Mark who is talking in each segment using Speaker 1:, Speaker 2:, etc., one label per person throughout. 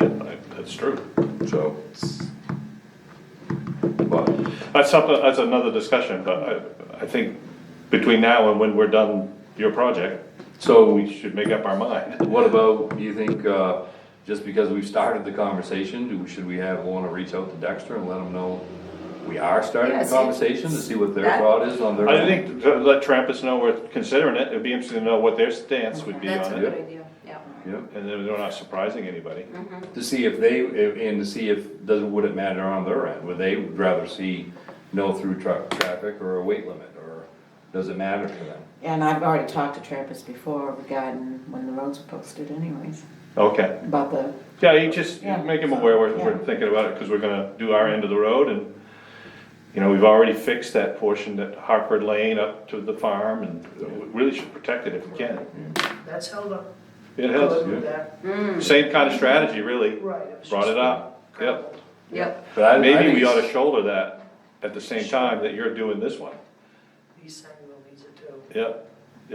Speaker 1: That's true.
Speaker 2: so. But,
Speaker 1: That's something, that's another discussion, but I, I think between now and when we're done your project,
Speaker 2: so
Speaker 1: we should make up our mind.
Speaker 2: what about, do you think, uh, just because we've started the conversation, do, should we have, wanna reach out to Dexter and let them know we are starting the
Speaker 3: Yes,
Speaker 2: conversation to see what their
Speaker 3: that-
Speaker 2: thought is on their?
Speaker 1: I
Speaker 2: end?
Speaker 1: think to let Trappist know we're considering it, it'd be interesting to know what their stance would be
Speaker 3: That's a
Speaker 1: on it.
Speaker 3: good idea, yeah.
Speaker 2: Yeah,
Speaker 1: And then they're not surprising anybody.
Speaker 2: to see if they, if- and to see if, does, would it matter on their end, would they rather see no through truck traffic or a weight limit, or does it matter to them?
Speaker 4: And I've already talked to Trappist before regarding when the roads were posted anyways,
Speaker 1: Okay.
Speaker 4: about the,
Speaker 1: Yeah, you just
Speaker 4: Yeah.
Speaker 1: make him aware we're, we're
Speaker 4: Yeah.
Speaker 1: thinking about it, because we're gonna do our end of the road and, you know, we've already fixed that portion that Hartford Lane up to the farm and we really should protect it if we can.
Speaker 5: That's held up.
Speaker 1: It has,
Speaker 5: Good with that.
Speaker 3: Mm,
Speaker 1: same kind of strategy, really,
Speaker 5: Right. was
Speaker 1: brought
Speaker 5: just-
Speaker 1: it up, yep.
Speaker 3: Yep,
Speaker 2: But I- I
Speaker 1: Maybe
Speaker 2: think
Speaker 1: we
Speaker 2: it's-
Speaker 1: ought to shoulder that at the same time that you're doing this one,
Speaker 5: East side will needs it too.
Speaker 1: yeah,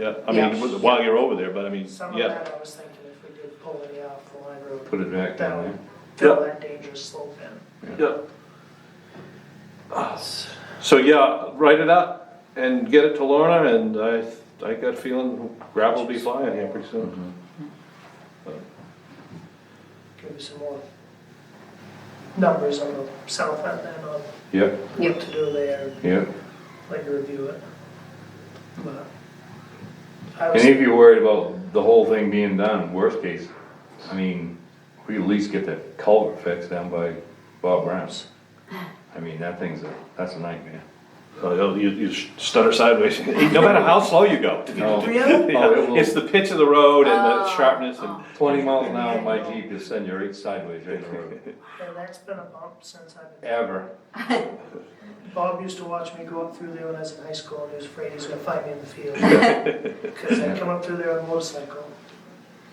Speaker 1: yeah, I
Speaker 3: Yeah.
Speaker 1: mean, with- while you're over there, but I mean,
Speaker 5: Some of
Speaker 1: yeah.
Speaker 5: that, I was thinking if we did pull any off the line road,
Speaker 2: Put it back
Speaker 5: that
Speaker 2: down there.
Speaker 5: would fill that dangerous slope in.
Speaker 1: Yeah. So, yeah, write it up and get it to Lorna, and I, I got a feeling gravel will be flying here pretty
Speaker 2: Mm-hmm.
Speaker 1: soon.
Speaker 5: Give you some more numbers on the south end then on
Speaker 2: Yep,
Speaker 5: what to do there,
Speaker 2: yep.
Speaker 5: let you review it. But I was
Speaker 2: And if you're worried about the whole thing being done, worst case, I mean, we at least get the culvert fixed down by Bob Brown's. I mean, that thing's a, that's a nightmare. Oh,
Speaker 1: So You, you stutter sideways, no matter how slow you go.
Speaker 2: No.
Speaker 5: Really? Ah.
Speaker 1: Yeah,
Speaker 2: Oh, it will-
Speaker 1: It's the pitch of the road and the sharpness and,
Speaker 2: Twenty miles an hour, my Jeep is sending you right sideways right in the road,
Speaker 5: And that's been a bump since I've been,
Speaker 2: ever.
Speaker 5: Bob used to watch me go up through there when I was in high school and he was afraid he was gonna find me in the field. Cause I'd come up through there on a motorcycle,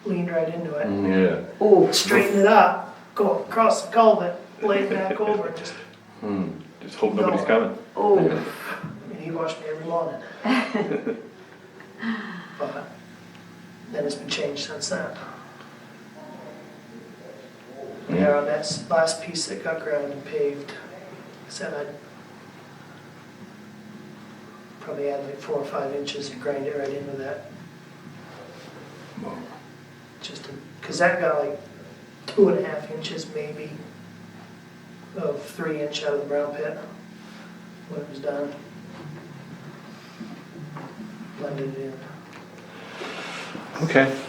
Speaker 5: leaned right into it,
Speaker 2: Yeah.
Speaker 3: ooh,
Speaker 5: straighten it up, go across the culvert, lay back over, and just,
Speaker 1: just hope nobody's
Speaker 5: No.
Speaker 1: coming.
Speaker 3: ooh,
Speaker 5: I mean, he watched me every morning. But then it's been changed since then. Yeah, on that s- last piece that got ground and paved, I said I'd probably add like four or five inches and grind it right in with that, just to, cause that got like two and a half inches maybe of three inch out of the brown pit when it was done. Blended it in.
Speaker 1: Okay.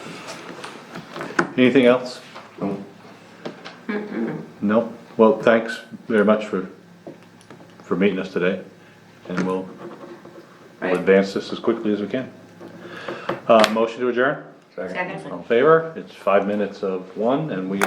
Speaker 1: Anything else?
Speaker 2: No.
Speaker 1: No, well, thanks very much for, for meeting us today, and we'll,
Speaker 3: Right.
Speaker 1: advance this as quickly as we can. Uh, motion to adjourn?
Speaker 2: Second.
Speaker 3: second.
Speaker 1: All in favor? It's five minutes of one, and we